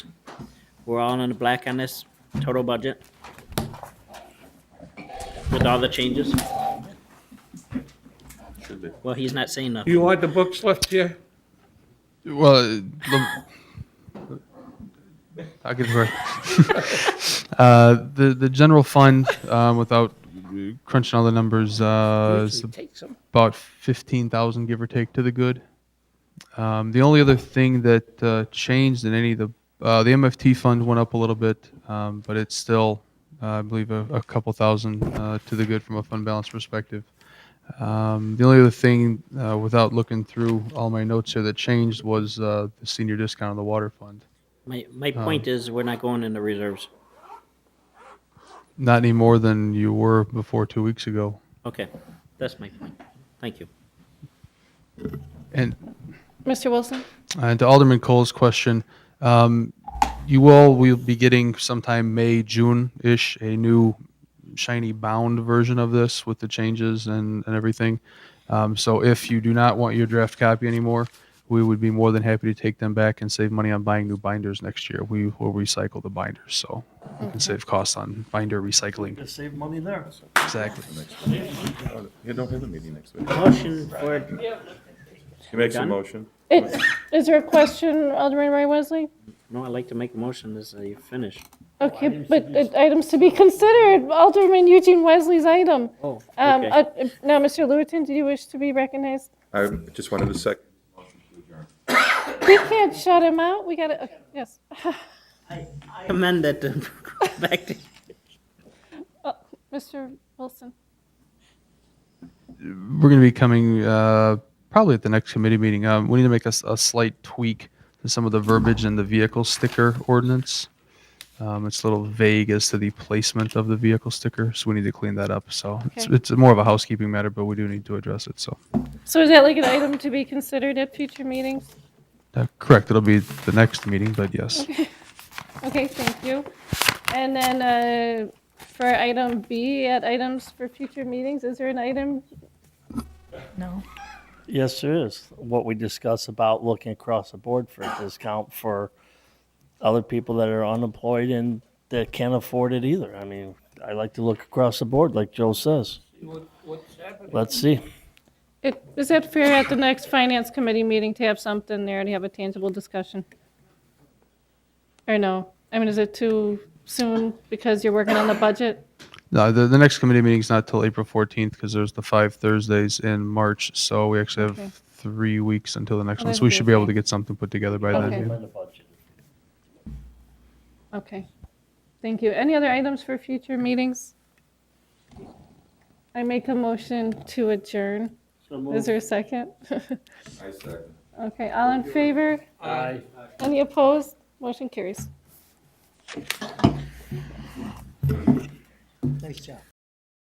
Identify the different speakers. Speaker 1: We're all in the black on this total budget. With all the changes.
Speaker 2: Should be.
Speaker 1: Well, he's not saying nothing.
Speaker 3: You want the books left here?
Speaker 4: Well, uh, the, I'll give it right. uh, the the general fund, um, without crunching all the numbers, uh, is
Speaker 3: Take some.
Speaker 4: about fifteen thousand, give or take, to the good. Um, the only other thing that uh, changed in any of the uh, the MFT fund went up a little bit, um, but it's still, uh, I believe, a, a couple thousand uh, to the good from a fund balance perspective. Um, the only other thing, uh, without looking through all my notes here, that changed was uh, the senior discount on the water fund.
Speaker 1: My, my point is, we're not going into reserves.
Speaker 4: Not any more than you were before two weeks ago.
Speaker 1: Okay, that's my point. Thank you.
Speaker 4: And
Speaker 5: Mr. Wilson?
Speaker 4: And Uh, to Alderman Cole's question, um, you all will be getting sometime May, June-ish, a new shiny bound version of this with the changes and, and everything. Um, so if you do not want your draft copy anymore, we would be more than happy to take them back and save money on buying new binders next year. We will recycle the binders, so we can save costs on binder recycling.
Speaker 6: Save money there.
Speaker 4: Exactly.
Speaker 2: You don't have a meeting next week.
Speaker 1: Motion for,
Speaker 2: He makes a
Speaker 1: Done?
Speaker 2: motion.
Speaker 5: It- Is there a question, Alderman Ray Wesley?
Speaker 1: no, I'd like to make a motion as Oh, I finish.
Speaker 5: Okay, but uh, items to be considered, Alderman Eugene Wesley's item.
Speaker 1: Oh,
Speaker 5: Um,
Speaker 1: okay.
Speaker 5: uh, Now, Mr. Lewitton, do you wish to be recognized?
Speaker 2: I just wanted to sec.
Speaker 5: We can't shut him out, we gotta, okay, yes.
Speaker 1: Amend that to go back to,
Speaker 5: Uh, Mr. Wilson?
Speaker 4: we're going to be coming uh, probably at the next committee meeting. Um, we need to make a, s- a slight tweak to some of the verbiage in the vehicle sticker ordinance. Um, it's a little vague as to the placement of the vehicle sticker, so we need to clean that up. So it's,
Speaker 5: Okay.
Speaker 4: it's more of a housekeeping matter, but we do need to address it. So
Speaker 5: So is that like an item to be considered at future meetings?
Speaker 4: uh, correct, it'll be the next meeting, but yes.
Speaker 5: Okay, thank you. And then uh, for item B, at items for future meetings, is there an item?
Speaker 6: Yes, there is. What we discussed about looking across the board for a discount for other people that are unemployed and that can't afford it either. I mean, I like to look across the board, like Joe says. Let's see.
Speaker 5: It- Is that fair at the next finance committee meeting to have something there to have a tangible discussion? Or no? I mean, is it too soon because you're working on the budget?
Speaker 4: No, Uh, the, the next committee meeting's not till April 14th because there's the five Thursdays in March. So we actually have
Speaker 5: Okay.
Speaker 4: three weeks until the next
Speaker 5: Oh,
Speaker 4: one. So
Speaker 5: that'd
Speaker 4: we
Speaker 5: be
Speaker 4: should be able
Speaker 5: okay.
Speaker 4: to get something put together by then.
Speaker 5: Okay.
Speaker 4: maybe.
Speaker 6: Amend the budget.
Speaker 5: Okay. Thank you. Any other items for future meetings? I make a motion to adjourn.
Speaker 6: So
Speaker 5: Is
Speaker 6: moved.
Speaker 5: there a second?
Speaker 2: I second.
Speaker 5: Okay, all in favor?
Speaker 6: Aye.
Speaker 5: Any opposed? Motion carries.
Speaker 6: Nice job.